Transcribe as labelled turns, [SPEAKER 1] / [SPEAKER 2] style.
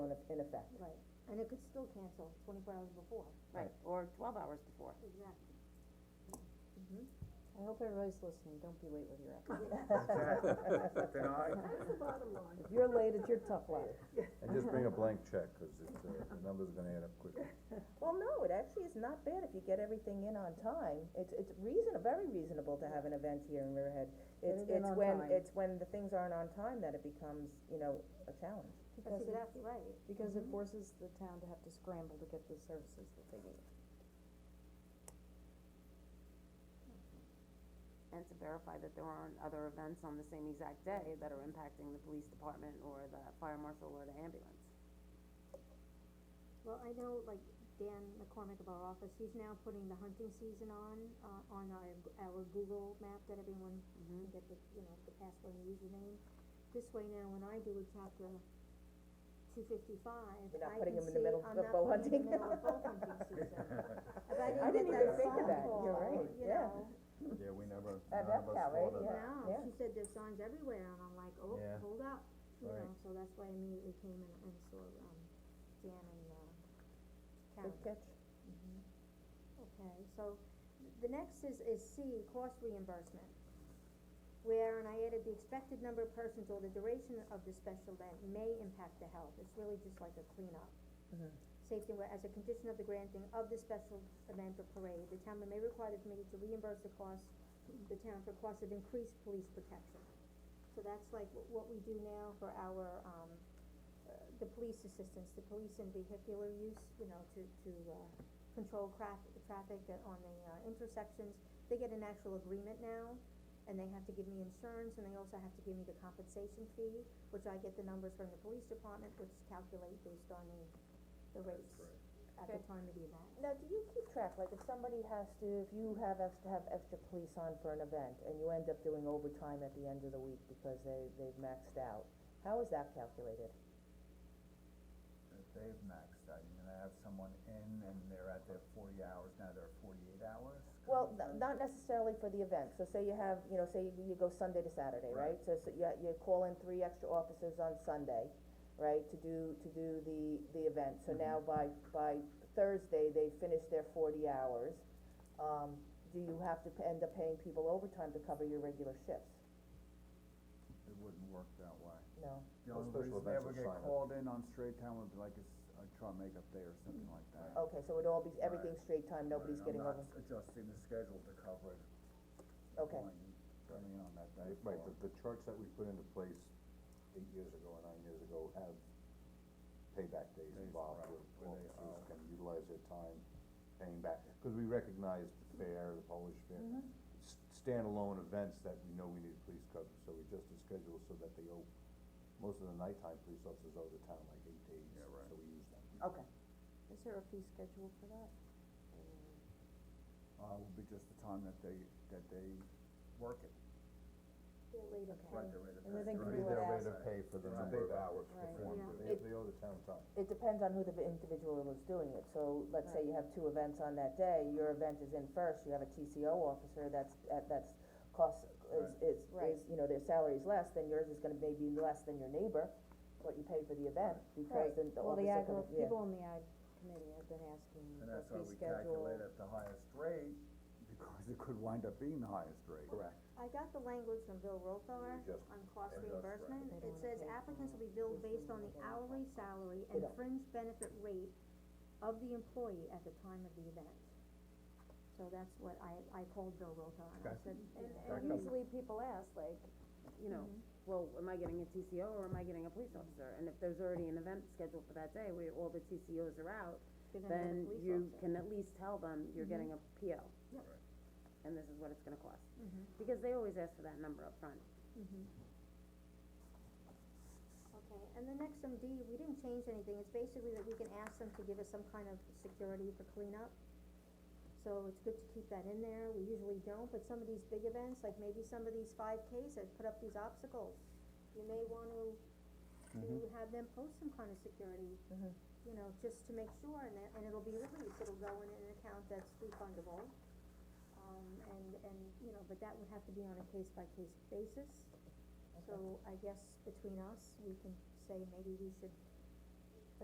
[SPEAKER 1] effect.
[SPEAKER 2] Right, and it could still cancel twenty-four hours before.
[SPEAKER 3] Right, or twelve hours before.
[SPEAKER 2] Exactly.
[SPEAKER 4] I hope everybody's listening, don't be late with your act.
[SPEAKER 5] Then I,
[SPEAKER 2] That's the bottom line.
[SPEAKER 4] If you're late, it's your tough luck.
[SPEAKER 6] And just bring a blank check, cause it's, uh, the number's are gonna add up quickly.
[SPEAKER 1] Well, no, it actually is not bad if you get everything in on time. It's, it's reason, very reasonable to have an event here in Riverhead. It's,
[SPEAKER 4] Get it in
[SPEAKER 1] it's
[SPEAKER 4] on
[SPEAKER 1] when,
[SPEAKER 4] time.
[SPEAKER 1] it's when the things aren't on time that it becomes, you know, a challenge.
[SPEAKER 4] Because
[SPEAKER 2] That's
[SPEAKER 4] it,
[SPEAKER 2] exactly right.
[SPEAKER 4] because
[SPEAKER 1] Mm-hmm.
[SPEAKER 4] it forces the town to have to scramble to get the services that they need.
[SPEAKER 3] And to verify that there aren't other events on the same exact day that are impacting the police department or the fire marshal or the ambulance.
[SPEAKER 2] Well, I know, like, Dan McCormick of our office, he's now putting the hunting season on, uh, on our, our Google map that everyone can
[SPEAKER 1] Mm-hmm.
[SPEAKER 2] get the, you know, the password and username. This way now, when I do a chapter two fifty-five,
[SPEAKER 1] You're not
[SPEAKER 2] I
[SPEAKER 1] putting
[SPEAKER 2] can
[SPEAKER 1] 'em in the
[SPEAKER 2] see
[SPEAKER 1] middle
[SPEAKER 2] I'm
[SPEAKER 1] of
[SPEAKER 2] not
[SPEAKER 1] bow hunting.
[SPEAKER 2] putting 'em in the middle of bow hunting season. If
[SPEAKER 1] I
[SPEAKER 2] I
[SPEAKER 1] didn't
[SPEAKER 2] didn't get
[SPEAKER 1] even
[SPEAKER 2] that
[SPEAKER 1] think of
[SPEAKER 2] phone
[SPEAKER 1] that.
[SPEAKER 2] call,
[SPEAKER 1] You're right,
[SPEAKER 2] you
[SPEAKER 1] yeah.
[SPEAKER 2] know,
[SPEAKER 6] Yeah, we never,
[SPEAKER 1] That- none of that's us how, right? thought of that.
[SPEAKER 2] No,
[SPEAKER 1] Yeah.
[SPEAKER 2] she said there's signs everywhere, and I'm like, oh,
[SPEAKER 6] Yeah.
[SPEAKER 2] hold up, you
[SPEAKER 6] Right.
[SPEAKER 2] know, so that's why I immediately came and, and saw, um, Dan and, uh, Karen.
[SPEAKER 1] Good catch.
[SPEAKER 2] Okay, so, the next is, is C, cost reimbursement. Where, and I added the expected number of persons or the duration of the special event may impact the health, it's really just like a cleanup.
[SPEAKER 4] Mm-hmm.
[SPEAKER 2] Safety, where as a condition of the granting of the special event or parade, the town may require the committee to reimburse the cost, the town for cost of increased police protection. So that's like wh- what we do now for our, um, uh, the police assistance, the police and vehicular use, you know, to, to, uh, control craft, traffic at- on the, uh, intersections. They get an actual agreement now, and they have to give me insurance, and they also have to give me the compensation fee, which I get the numbers from the police department, which calculate based on the, the rates at the time of the event.
[SPEAKER 1] Now, do you keep track, like if somebody has to, if you have, ex- have extra police on for an event and you end up doing overtime at the end of the week because they, they've maxed out, how is that calculated?
[SPEAKER 5] that they've maxed out, you're gonna have someone in and they're at their forty hours, now they're forty-eight hours?
[SPEAKER 1] Well, n- not necessarily for the event, so say you have, you know, say you, you go Sunday to Saturday, right? So, so you, you call in three extra officers on Sunday, right, to do, to do the, the event, so
[SPEAKER 7] Mm-hmm.
[SPEAKER 1] now by, by Thursday, they finish their forty hours. Um, do you have to p- end up paying people overtime to cover your regular shifts?
[SPEAKER 7] It wouldn't work that way.
[SPEAKER 1] No.
[SPEAKER 7] The
[SPEAKER 6] Well,
[SPEAKER 7] only
[SPEAKER 6] special
[SPEAKER 7] reason they
[SPEAKER 6] events
[SPEAKER 7] ever
[SPEAKER 6] will
[SPEAKER 7] get
[SPEAKER 6] sign up.
[SPEAKER 7] called in on straight time would be like a, s- a trial makeup day or something like that.
[SPEAKER 1] Okay, so it all be, everything's straight time, Oh, nobody's
[SPEAKER 7] Right,
[SPEAKER 1] getting over,
[SPEAKER 7] I'm not adjusting the schedule to cover it,
[SPEAKER 1] okay,
[SPEAKER 7] going, going on that day.
[SPEAKER 6] Right, the, the charts that we put into place eight years ago or nine years ago have payback days
[SPEAKER 7] Days,
[SPEAKER 6] involved
[SPEAKER 7] right,
[SPEAKER 6] where
[SPEAKER 7] where they
[SPEAKER 6] officers
[SPEAKER 7] are-
[SPEAKER 6] can utilize their time paying back. Cause we recognize the fair, the Polish fair,
[SPEAKER 1] Mm-hmm.
[SPEAKER 6] s- standalone events that we know we need police coverage, so we just schedule so that they owe, most of the nighttime police officers owe the town like eight days,
[SPEAKER 7] Yeah, right.
[SPEAKER 6] so we use them.
[SPEAKER 1] okay.
[SPEAKER 3] Is there a fee schedule for that?
[SPEAKER 7] Uh, would be just the time that they, that they work it.
[SPEAKER 2] Get laid up.
[SPEAKER 7] Right, the rate of
[SPEAKER 4] And then they
[SPEAKER 7] pay.
[SPEAKER 4] can
[SPEAKER 6] It'd
[SPEAKER 4] do
[SPEAKER 6] be
[SPEAKER 4] it
[SPEAKER 6] their rate
[SPEAKER 4] as-
[SPEAKER 6] of pay for the
[SPEAKER 7] Right.
[SPEAKER 6] number of hours
[SPEAKER 4] Right.
[SPEAKER 6] performed,
[SPEAKER 2] Yeah.
[SPEAKER 6] they, they owe the town time.
[SPEAKER 1] It depends on who the individual is doing it, so let's say you have two events on that day, your event is in first, you have a TCO officer, that's, that- that's cost, is, is, is,
[SPEAKER 4] Right.
[SPEAKER 1] you know, their salary is less, then yours is gonna maybe less than your neighbor, what you pay for the event, because then the
[SPEAKER 4] Well, the
[SPEAKER 1] officer comes,
[SPEAKER 4] ag,
[SPEAKER 1] yeah.
[SPEAKER 4] people in the ag committee have been asking for
[SPEAKER 7] And that's why
[SPEAKER 4] fee
[SPEAKER 7] we
[SPEAKER 4] schedule.
[SPEAKER 7] calculate at the highest rate, because it could wind up being the highest rate. Correct.
[SPEAKER 2] I got the language from Bill Rothar
[SPEAKER 6] just-
[SPEAKER 2] on cost
[SPEAKER 6] and just
[SPEAKER 2] reimbursement,
[SPEAKER 4] They
[SPEAKER 2] it
[SPEAKER 4] don't wanna
[SPEAKER 2] says
[SPEAKER 4] pay for
[SPEAKER 2] applicants
[SPEAKER 4] it.
[SPEAKER 2] will be billed
[SPEAKER 4] Who's
[SPEAKER 2] based
[SPEAKER 4] doing
[SPEAKER 2] on the
[SPEAKER 4] it? They don't
[SPEAKER 2] hourly salary and
[SPEAKER 1] don't.
[SPEAKER 2] fringe benefit rate of the employee at the time of the event. So that's what I, I called Bill Rothar and I
[SPEAKER 5] Okay.
[SPEAKER 2] said, you
[SPEAKER 4] And,
[SPEAKER 2] know,
[SPEAKER 4] and usually people ask, like,
[SPEAKER 3] You know, well, am I getting a TCO or am I getting a police officer? And if there's already an event scheduled for that day where all the TCOs are out,
[SPEAKER 2] they're gonna have a
[SPEAKER 3] then
[SPEAKER 2] police
[SPEAKER 3] you
[SPEAKER 2] officer.
[SPEAKER 3] can at least tell them you're getting a PO.
[SPEAKER 2] Yep.
[SPEAKER 3] And this is what it's gonna cost. Because they always ask for that number up front.
[SPEAKER 2] Okay, and the next MD, we didn't change anything, it's basically that we can ask them to give us some kind of security for cleanup. So it's good to keep that in there, we usually don't, but some of these big events, like maybe some of these five Ks that put up these obstacles, you may wanna, to have them post some kind of security. You know, just to make sure, and that, and it'll be released, it'll go in an account that's refundable. Um, and, and, you know, but that would have to be on a case by case basis. So I guess between us, we can say maybe we should